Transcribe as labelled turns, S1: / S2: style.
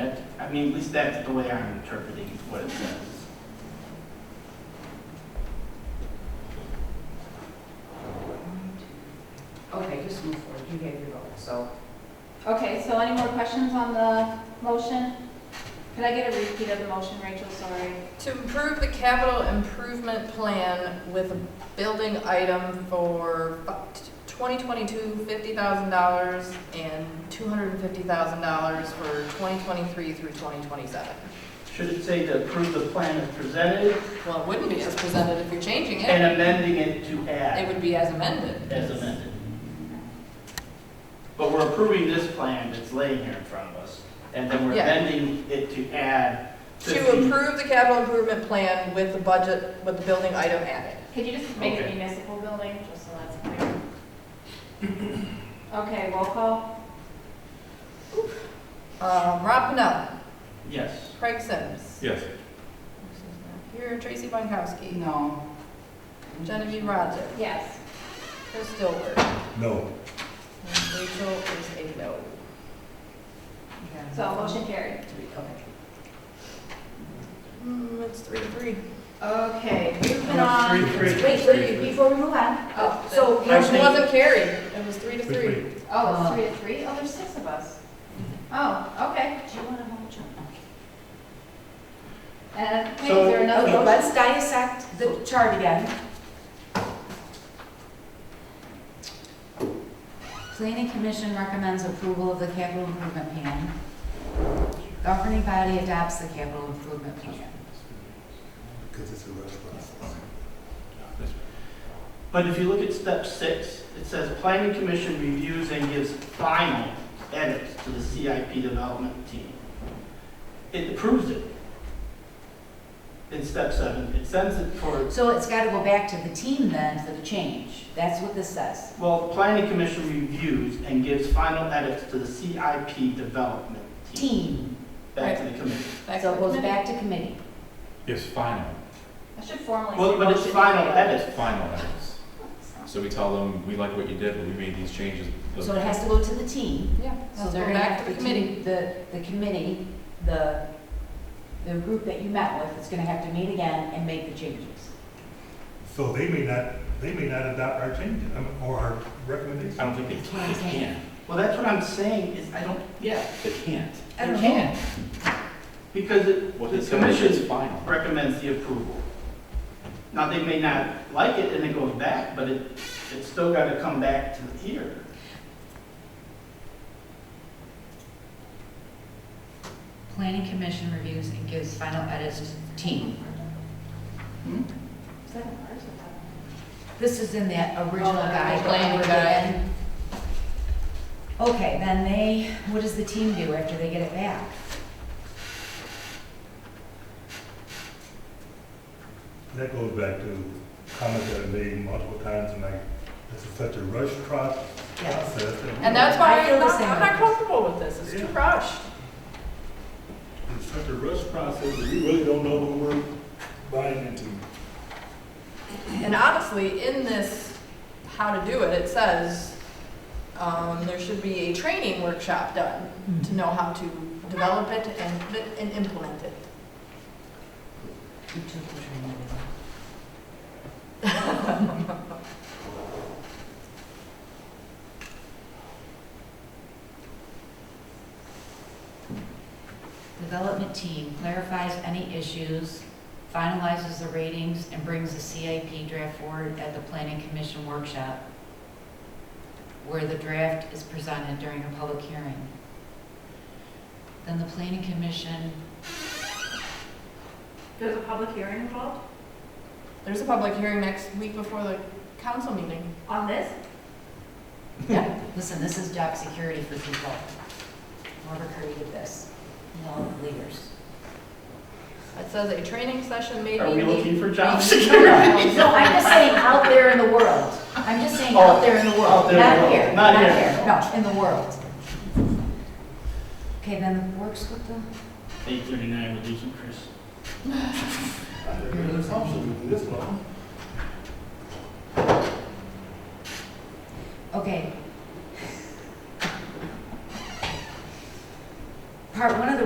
S1: I mean, at least that's the way I'm interpreting what it says.
S2: Okay, just move forward, you gave your vote, so.
S3: Okay, so any more questions on the motion? Could I get a repeat of the motion, Rachel, sorry?
S4: To improve the capital improvement plan with a building item for 2022, $50,000 and $250,000 for 2023 through 2027.
S1: Should it say to approve the plan as presented
S4: Well, it wouldn't be as presented if you're changing it.
S1: and amending it to
S4: It
S1: add
S4: would be as amended.
S1: as amended? But we're approving this plan that's laying here in front of us, and then we're
S4: Yeah.
S1: amending it to add
S4: To
S1: fifteen.
S4: approve the capital improvement plan with the budget, with the building item added.
S3: Could you just make it
S1: Okay.
S3: municipal building, just so that's clear? Okay, roll call?
S4: Um, Rob Pennell,
S1: Yes.
S4: Craig Sims.
S5: Yes.
S4: Here, Tracy Bonkowski,
S2: No.
S4: Genevieve Rogers,
S3: Yes.
S4: Chris Dilworth,
S5: No.
S4: and Rachel is a no.
S2: Yeah.
S3: So motion carried.
S2: Okay. Mm,
S4: Hmm, it's three to three.
S3: Okay, we've been
S1: No,
S4: um,
S3: on,
S1: three, three.
S3: wait, wait, before we move on.
S4: Oh,
S3: So
S4: so
S1: I
S4: motion
S1: think-
S4: wasn't carried. It was three to three.
S5: Three.
S3: Oh, it's three to three? Oh, there's six of us. Oh, okay. Do you want to hold your? And wait, is
S1: So-
S3: there another
S2: Okay,
S3: motion?
S2: let's dissect the chart again. Planning Commission recommends approval of the capital improvement plan. Governing body adopts the capital improvement plan.
S5: Because it's a restaurant.
S1: But if you look at step six, it says planning commission reviews and gives final edits to the CIP development team. It approves it. In step seven, it sends it for,
S2: So it's got to go back to the team then for the change. That's what this says.
S1: well, planning commission reviews and gives final edits to the CIP development team.
S2: Team,
S1: Back to the commission.
S4: Back
S2: so
S4: to
S2: it
S4: the
S2: goes
S4: committee.
S2: back to committee.
S6: It's final,
S3: I should formally.
S1: Well,
S3: say
S1: but it's
S3: motion
S1: final
S3: carried.
S1: edits.
S6: final edits. So we tell them, we like what you did, but we made these changes.
S2: So it has to go to the team.
S4: Yeah,
S2: So
S4: so
S2: they're
S4: go
S2: gonna have
S4: back to
S2: to
S4: the committee.
S2: keep the, the committee, the, the group that you met with is gonna have to meet again and make the changes.
S5: So they may not, they may not adopt our change, um, or our recommendation.
S6: I don't think
S2: That's what I'm
S6: they, they
S2: saying.
S6: can.
S1: Well, that's what I'm saying is I don't, yeah,
S6: They can't.
S2: I
S1: they
S2: don't
S1: can't. Because it,
S6: What they
S1: the
S6: said is
S1: commission's
S6: it's final.
S1: recommends the approval. Now, they may not like it and it goes back, but it, it's still got to come back to here.
S2: Planning commission reviews and gives final edits to the team.
S3: Is that ours or that?
S2: This is in that original
S4: Oh, the
S2: guide.
S4: plan guide.
S2: Okay, then they, what does the team do after they get it back?
S5: That goes back to comments that I made multiple times, and like, this is such a rush pro-
S2: Yes.
S5: process.
S4: And that's why
S2: I feel
S4: I'm
S2: the
S4: not,
S2: same
S4: I'm not
S2: way.
S4: comfortable with this. It's too
S5: Yeah.
S4: rushed.
S5: It's such a rush process, that we really don't know what we're buying into.
S4: And honestly, in this, how to do it, it says, um, there should be a training workshop done to know how to develop it and, put it and implement it.
S2: You took the training. Development team clarifies any issues, finalizes the ratings, and brings the CIP draft forward at the planning commission workshop, where the draft is presented during a public hearing. Then the planning commission
S3: There's a public hearing involved
S4: There's a public hearing next week before the council meeting.
S3: on this?
S2: Yeah, listen, this is job security for people. Whoever created this, you know, leaders.
S4: It says a training session may be.
S1: Are we looking for job
S2: No,
S1: security?
S2: no, I'm just saying out there in the world. I'm just saying out there in the
S1: Oh, Out
S2: world,
S1: there in the
S2: not
S1: world,
S2: here,
S1: not
S2: not
S1: here.
S2: here, no, in the world. Okay, then works with the,
S1: Eight thirty-nine, we're losing Chris.
S5: There's an assumption in this one.
S2: okay. Part one of the